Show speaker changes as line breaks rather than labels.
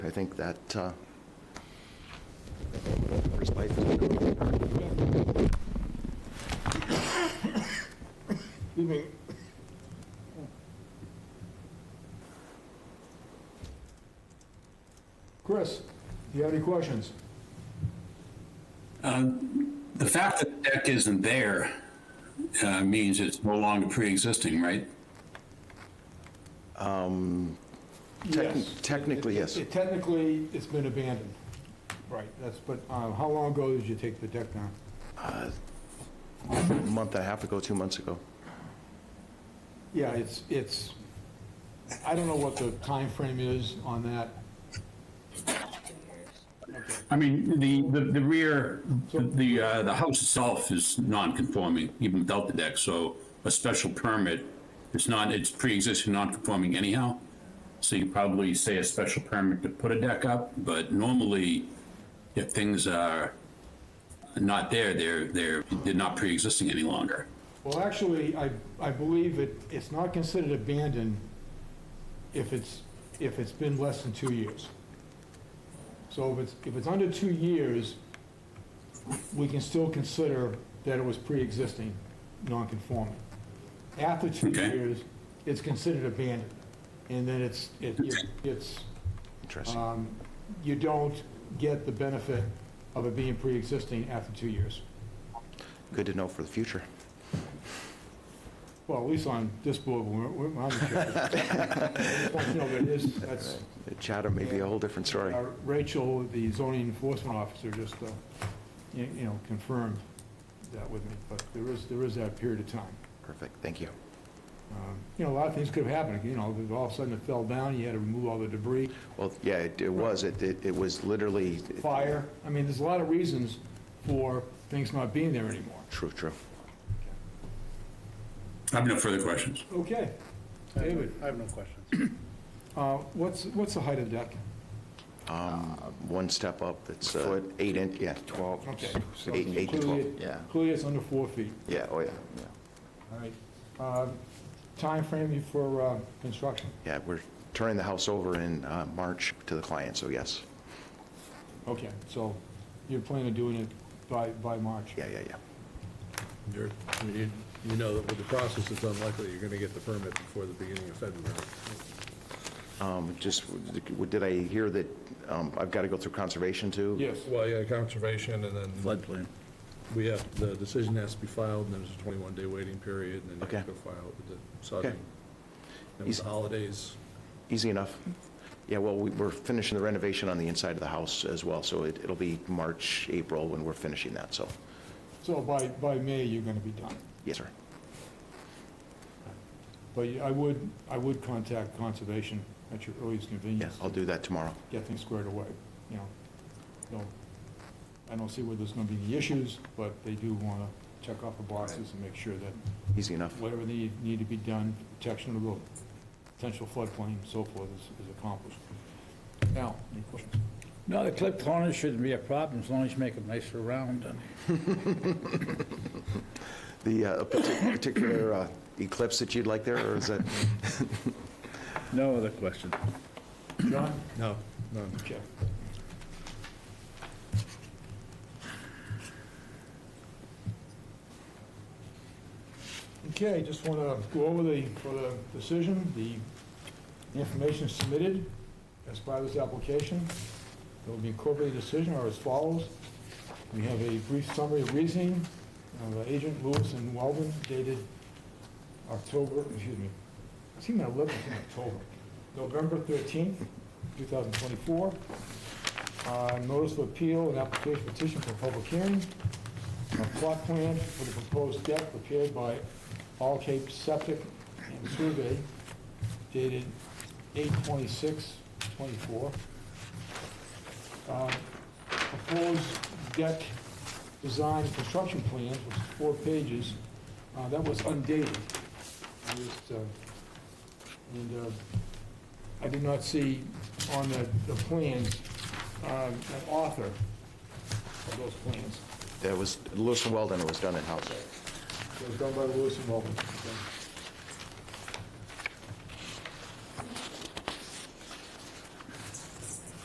think that uh, first life has been over.
Chris, do you have any questions?
The fact that the deck isn't there uh, means it's no longer pre-existing, right?
Techni- technically, yes.
It- it- Technically, it's been abandoned. Right, that's, but uh, how long ago did you take the deck down?
a month and a half ago, two months ago.
Yeah, it's, it's, I don't know what the time frame is on that.
I mean, the, the the rear, the, uh, the house itself is non-conforming, even without the deck, so a special permit, it's not, it's pre-existing non-conforming anyhow. So you probably say a special permit to put a deck up, but normally, if things are not there, they're, they're, they're not pre-existing any longer.
Well, actually, I, I believe it, it's not considered abandoned if it's, if it's been less than two years. So if it's, if it's under two years, we can still consider that it was pre-existing, non-conforming. After two
Okay.
years, it's considered abandoned, and then it's, it it's, um,
Interesting.
you don't get the benefit of it being pre-existing after two years.
Good to know for the future.
Well, at least on this board, we're, we're on the chair. No, but it is, that's,
Chatham may be a whole different story.
uh, Rachel, the zoning enforcement officer, just, uh, you you know, confirmed that with me, but there is, there is that period of time.
Perfect, thank you.
Um, You know, a lot of things could have happened, you know, all of a sudden it fell down, you had to remove all the debris,
Well, yeah, it it was, it, it it was literally.
fire. I mean, there's a lot of reasons for things not being there anymore.
True, true.
I have no further questions.
Okay, David,
I have no questions.
uh, what's, what's the height of the deck?
Um, One step up, it's uh, eight inch, yeah. 12.
Okay. so
Eight, eight to
clearly
12,
it-
yeah.
Clearly it's under four feet.
Yeah, oh, yeah, yeah.
All right. Uh, Timeframe for uh, construction?
Yeah, we're turning the house over in uh, March to the client, so yes.
Okay, so you're planning on doing it by, by March?
Yeah, yeah, yeah.
You're, you, you know that with the process, it's unlikely you're gonna get the permit before the beginning of February.
Um, Just, did I hear that um, I've got to go through conservation too?
Yes.
Well, yeah, conservation and then.
floodplain.
We have, the decision has to be filed and there's a twenty-one day waiting period and then you have to
Okay.
go file it with the Sudden.
Okay.
And with
Is-
the holidays,
Easy enough. Yeah, well, we- we're finishing the renovation on the inside of the house as well, so it- it'll be March, April when we're finishing that, so,
So by, by May, you're going to be done?
yes, sir.
But you- I would, I would contact Conservation at your earliest
Yeah,
convenience.
I'll do that tomorrow.
Get things squared away, you know? So I don't see where there's going to be any issues, but they do want to check off the boxes and make sure that
Easy enough.
whatever need, need to be done, protection of the potential floodplain and so forth is, is accomplished. Now, any questions?
No, the clipped corners shouldn't be a problem, as long as you make them nicer round. and-
The uh, a partic- particular uh, eclipse that you'd like there, or is that?
No other questions.
John?
no, no,
Okay. Okay, just want to go over the, for the decision, the information submitted as part of this application. It will be incorporated in the decision are as follows. We have a brief summary of reasoning of uh, Agent Lewis and Weldon dated October, excuse me, I see my 11th in October, November 13th, 2024. Uh, Notice of appeal and application petition for public hearing. A plot plan for the proposed deck prepared by All Cape Septic and Survey dated 8/26/24. Uh, Proposed deck design and construction plans, which is four pages, uh, that was undated. I just, uh, And uh, I did not see on the, the plans, um, an author of those plans.
That was, Lewis and Weldon, it was done in-house.
It was done by Lewis and Walton.